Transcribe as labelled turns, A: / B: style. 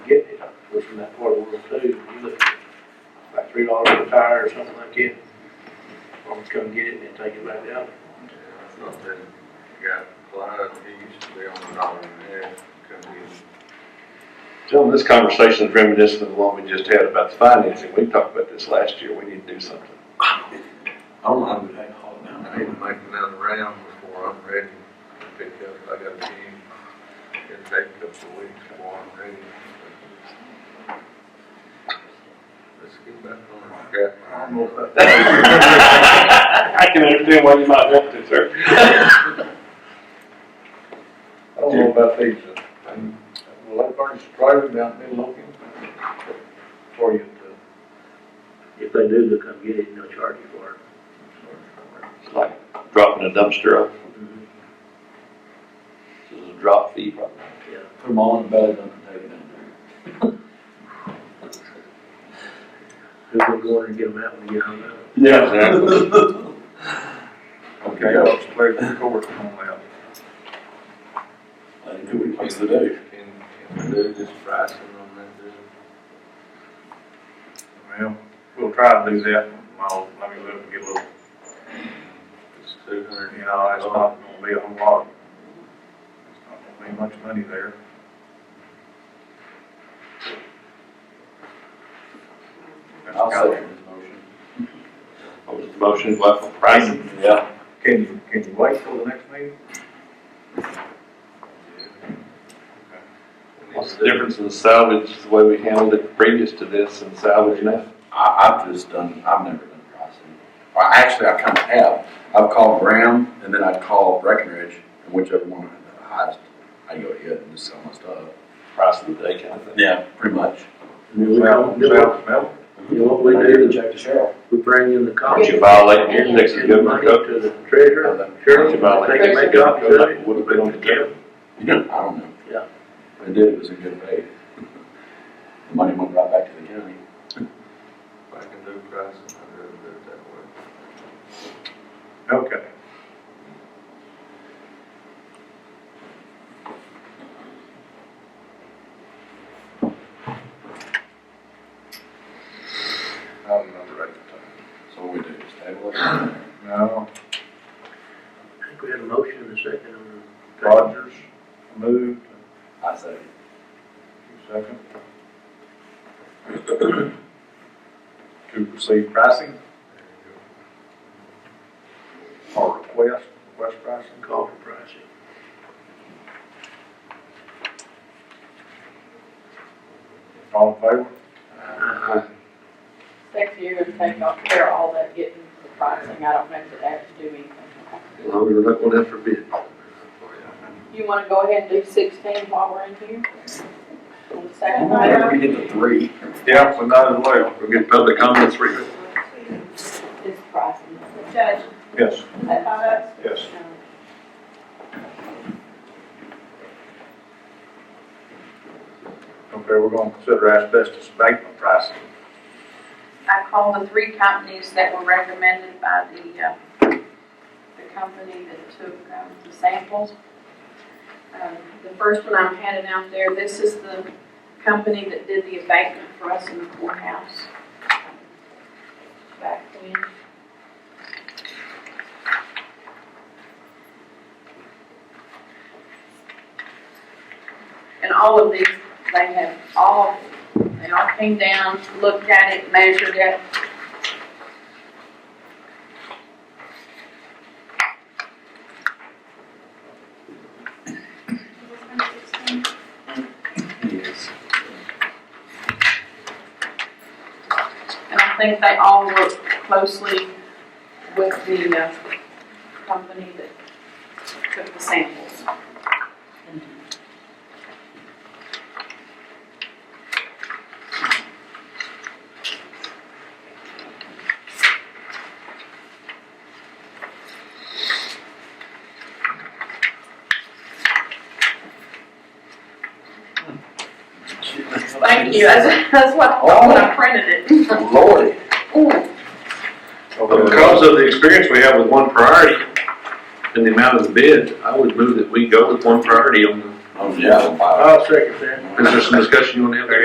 A: in that part of World Two, you look like three dollars a tire or something like that. Farmers come get it and then take it back down.
B: Something got applied, he used to be on the dollar and a half, couldn't be.
C: Well, this conversation is reminiscent of the one we just had about the financing. We talked about this last year. We need to do something.
D: I'm, I'm gonna haul it down.
B: I need to make another round before I'm ready to pick up, I got a team, it'll take a couple of weeks before I'm ready. Let's get back on track.
A: Almost like that.
C: I can understand why you might want to, sir.
E: I don't know about these, uh, and, well, I've learned to drive them down mid-Logan for you to.
A: If they do, they'll come get it and they'll charge you for it.
C: It's like dropping a dumpster off. This is a drop fee problem.
D: Put them all in the bag, I'm gonna take it down there.
A: Who will go in and get them out when you get home?
C: Yeah.
E: Okay. I'll play the court on that.
D: I think we place the day.
B: Can, can we do this pricing on that, dude?
E: Well, we'll try to do that, well, let me let them get a little,
B: It's two hundred.
E: you know, it's not gonna be a whole lot. It's not gonna be much money there.
D: I'll second his motion.
C: What was the motion, what, for pricing?
D: Yeah.
E: Can you, can you wait till the next meeting?
C: What's the difference in salvage, the way we handled it previous to this and salvage now?
D: I, I've just done, I've never done pricing. Well, actually, I kind of have. I've called Brown and then I'd call Breckenridge and whichever one had the highest, I go to it and just sell my stuff.
C: Price of the day kind of thing.
D: Yeah. Pretty much.
E: Mel, Mel, Mel?
A: You know what we do,
D: check the sheriff.
A: we bring in the cops.
C: Aren't you violating your Texas government
A: Go
C: code?
A: to the treasurer,
C: Aren't
A: sheriff,
C: you
A: they can
C: violating
A: make
C: Texas
A: copies
C: government
A: of
C: code?
A: it.
C: Would have been on the county.
D: I don't know.
A: Yeah.
D: They did, it was a good pay. The money went right back to the county.
B: If I can do pricing, I'd rather do it that way.
E: Okay. I don't remember at the
D: So what we do, just table it.
E: time. No,
A: I think we had a motion and a second on the.
E: Rogers moved,
D: I say,
E: second. To receive pricing or request, request pricing.
A: Call for pricing.
E: All in favor?
A: Uh,
F: Next year, and take off care of all that getting the pricing, I don't know if it actually do anything.
C: As long as we're not going after bid.
F: You wanna go ahead and do sixteen while we're in here? On the second
D: whenever
F: item,
D: we get to three,
E: Yeah, so none as well.
C: We'll get public comments for you.
F: is pricing.
G: Judge,
E: Yes,
G: is that five votes?
E: yes. Okay, we're gonna consider asbestos abatement pricing.
G: I called the three companies that were recommended by the, uh, the company that took, um, the samples. Um, The first one I'm handing out there, this is the company that did the abatement for us in the courthouse. Back when. And all of these, they have all they all came down, looked at it, measured it. And I think they all worked closely with the uh, company that took the samples. Thank you, that's, that's what, I thought when I printed it.
D: Lordy,
G: Ooh.
C: But Because of the experience we have with one priority and the amount of the bid, I would move that we go with one priority on,
D: oh yeah, wow.
A: I'll second that.
C: the- is there some discussion you want to have there?